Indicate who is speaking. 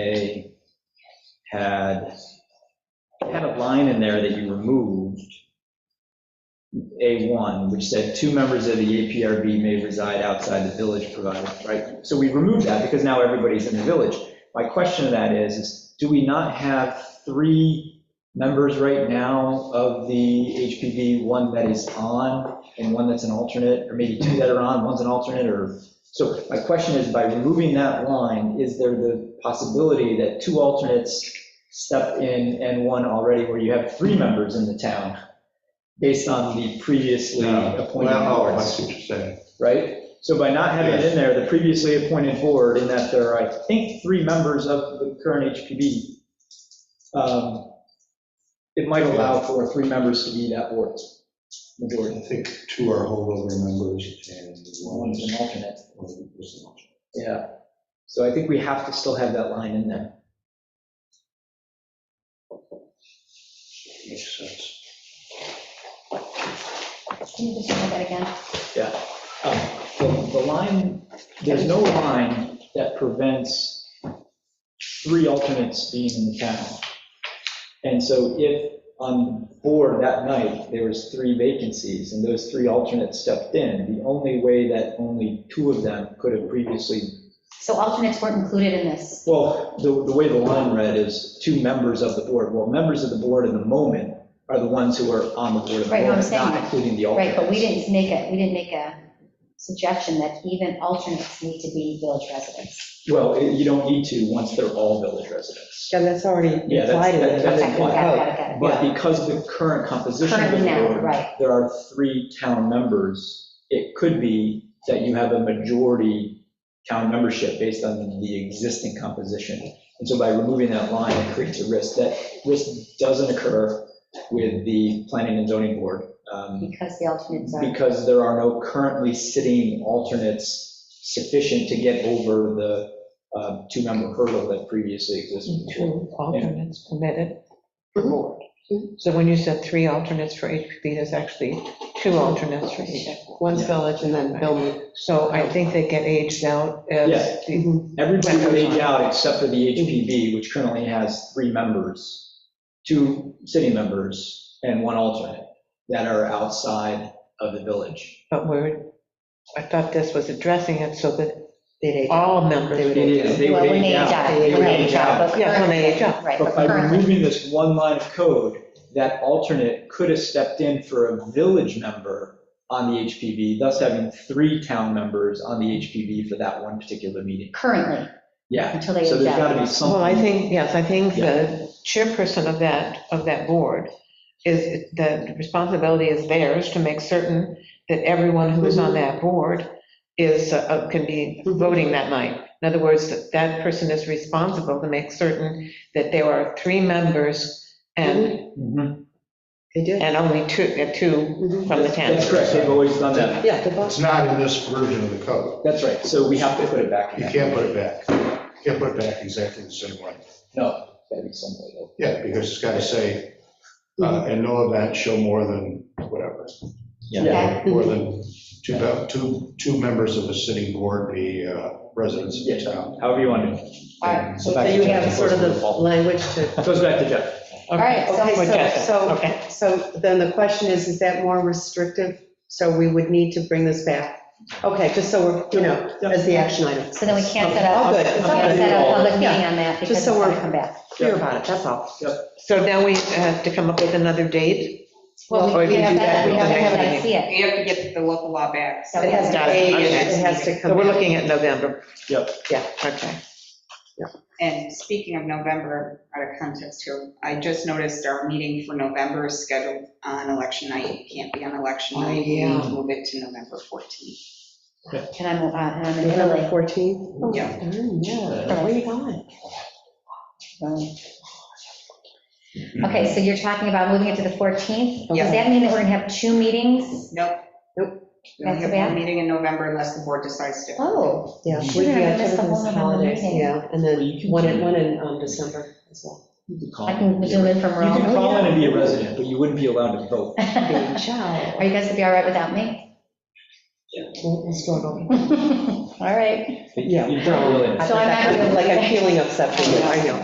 Speaker 1: A had, had a line in there that you removed, A1, which said, "Two members of the APRB may reside outside the village provided," right? So we removed that because now everybody's in the village. My question to that is, is do we not have three members right now of the HPV, one that is on and one that's an alternate, or maybe two that are on, one's an alternate, or so my question is, by removing that line, is there the possibility that two alternates step in and one already, where you have three members in the town, based on the previously
Speaker 2: No.
Speaker 1: appointed
Speaker 2: Well, oh, I
Speaker 1: boards,
Speaker 2: see what you're saying.
Speaker 1: right? So by not having it in there, the previously appointed board, in that there are, I think, three members of the current HPB, um, it might allow for three members to be that board, majority,
Speaker 2: I think two are holdover members and one
Speaker 1: one's
Speaker 2: is.
Speaker 1: an alternate.
Speaker 2: one is not.
Speaker 1: Yeah, so I think we have to still have that line in there.
Speaker 2: Makes sense.
Speaker 3: Can you just say that again?
Speaker 1: Um, The the line, there's no line that prevents three alternates being in the town. And so if on board that night, there was three vacancies and those three alternates stepped in, the only way that only two of them could have previously,
Speaker 3: So alternates weren't included in this.
Speaker 1: well, the the way the line read is two members of the board. Well, members of the board in the moment are the ones who are on the board at the
Speaker 3: Right, no, I'm
Speaker 1: moment,
Speaker 3: saying
Speaker 1: not
Speaker 3: that.
Speaker 1: including the
Speaker 3: Right,
Speaker 1: alternates.
Speaker 3: but we didn't make a, we didn't make a suggestion that even alternates need to be village residents.
Speaker 1: Well, it- you don't need to once they're all village residents.
Speaker 4: Yeah, that's already
Speaker 1: Yeah, that's-
Speaker 4: implied in it.
Speaker 1: that's
Speaker 3: Okay, got it, got it, got it.
Speaker 1: But because the current composition of the
Speaker 3: Currently now,
Speaker 1: board,
Speaker 3: right.
Speaker 1: there are three town members, it could be that you have a majority town membership based on the existing composition. And so by removing that line, it creates a risk. That risk doesn't occur with the planning and zoning board. um,
Speaker 3: Because the alternates are,
Speaker 1: because there are no currently sitting alternates sufficient to get over the uh, two-member hurdle that previously existed.
Speaker 4: Two alternates permitted per board. So when you said three alternates for HPP, there's actually two alternates for each.
Speaker 5: One's village and then Billmead.
Speaker 4: So I think they get aged out
Speaker 1: Yeah.
Speaker 4: as, the-
Speaker 1: Everybody would age out except for the HPB, which currently has three members, two city members and one alternate that are outside of the village.
Speaker 4: but we're, I thought this was addressing it so that all members
Speaker 1: It
Speaker 4: would
Speaker 1: is,
Speaker 4: age
Speaker 1: they
Speaker 3: well,
Speaker 1: would
Speaker 3: when they
Speaker 1: age
Speaker 3: age
Speaker 1: out.
Speaker 3: out,
Speaker 1: They
Speaker 3: when
Speaker 1: would
Speaker 3: they age out. but
Speaker 4: Yeah, when they
Speaker 3: currently-
Speaker 4: age out.
Speaker 3: Right,
Speaker 1: But
Speaker 3: but
Speaker 1: by
Speaker 3: currently,
Speaker 1: removing this one line of code, that alternate could have stepped in for a village member on the HPV, thus having three town members on the HPV for that one particular meeting.
Speaker 3: currently,
Speaker 1: Yeah,
Speaker 3: until they age out.
Speaker 1: so there's got to be
Speaker 4: Well,
Speaker 1: something,
Speaker 4: I think, yes, I think the chairperson of that, of that board is, the responsibility is theirs to make certain that everyone who
Speaker 5: Mm-hmm.
Speaker 4: is on that board is, uh, can be voting that night. In other words, that that person is responsible to make certain that there are three members and,
Speaker 1: Mhm.
Speaker 5: Mm-hmm. They did.
Speaker 4: and only two, uh, two
Speaker 5: Mhm.
Speaker 4: from the town.
Speaker 1: that's correct, they've always done that,
Speaker 5: Yeah, the boss.
Speaker 2: It's not in this version of the code.
Speaker 1: that's right, so we have to put it back in.
Speaker 2: You can't put it back. You can't put it back exactly the same way.
Speaker 1: No, that'd be some way though.
Speaker 2: Yeah, because it's got to say, uh, in no event show more than whatever.
Speaker 1: Yeah,
Speaker 2: More than two, pe- two, two members of a sitting board be uh, residents of the town.
Speaker 1: however you want to.
Speaker 3: All right,
Speaker 1: So
Speaker 5: So
Speaker 1: back to
Speaker 5: you
Speaker 1: Jeff.
Speaker 5: have sort of the language to,
Speaker 1: It goes back to Jeff.
Speaker 3: all right, so-
Speaker 5: Okay, so- so-
Speaker 4: Okay.
Speaker 5: so then the question is, is that more restrictive? So we would need to bring this back. Okay, just so we're, you know, as the action item,
Speaker 3: so then we can't set up,
Speaker 5: All
Speaker 3: we
Speaker 5: good.
Speaker 3: can't set up a public meeting on that because
Speaker 5: Just
Speaker 3: it's
Speaker 5: so
Speaker 3: going to
Speaker 5: we're-
Speaker 3: come back.
Speaker 5: clear about it, that's all.
Speaker 4: So now we have to come up with another date?
Speaker 3: Well,
Speaker 4: Or
Speaker 3: we
Speaker 4: you
Speaker 3: we
Speaker 4: do
Speaker 3: have
Speaker 4: that
Speaker 3: that, we
Speaker 4: with
Speaker 3: have
Speaker 4: the
Speaker 3: to
Speaker 4: next
Speaker 3: have that,
Speaker 4: meeting.
Speaker 3: see it.
Speaker 6: We have to get the local law back.
Speaker 3: So
Speaker 5: It has to
Speaker 4: Got it.
Speaker 5: age,
Speaker 4: Okay.
Speaker 5: it has to
Speaker 4: So
Speaker 5: come
Speaker 4: we're
Speaker 5: back.
Speaker 4: looking at November.
Speaker 1: Yep.
Speaker 4: Yeah, okay.
Speaker 6: And speaking of November, out of context here, I just noticed our meeting for November is scheduled on election night. It can't be on election
Speaker 5: Oh,
Speaker 6: night. We
Speaker 5: yeah.
Speaker 6: need to move it to November 14th.
Speaker 3: And I'm, uh, and I'm in Italy.
Speaker 5: November 14?
Speaker 6: Yeah.
Speaker 5: Oh, Yeah, where you going?
Speaker 3: Right. Okay, so you're talking about moving it to the 14th? Does
Speaker 6: Yeah.
Speaker 3: that mean that we're going to have two meetings?
Speaker 6: Nope.
Speaker 5: Nope.
Speaker 6: We only
Speaker 3: That's
Speaker 6: have
Speaker 3: bad.
Speaker 6: one meeting in November unless the board decides to.
Speaker 3: Oh,
Speaker 5: Yeah.
Speaker 1: Shoot,
Speaker 5: we-
Speaker 3: I
Speaker 5: yeah,
Speaker 3: missed the whole
Speaker 5: children's
Speaker 3: November
Speaker 5: holidays,
Speaker 3: meeting.
Speaker 5: Yeah, and
Speaker 1: Well, you
Speaker 5: then
Speaker 1: can
Speaker 5: one
Speaker 1: do-
Speaker 5: in, one in um, December as well.
Speaker 3: I can zoom in from
Speaker 1: You can
Speaker 3: Rome.
Speaker 1: call in and be a resident, but you wouldn't be allowed to vote.
Speaker 3: Are you guys going to be all right without me?
Speaker 5: We'll we'll struggle.
Speaker 3: All all right.
Speaker 7: You don't really.
Speaker 4: So I'm
Speaker 3: actually-
Speaker 4: Like, I'm feeling upset for you, I know.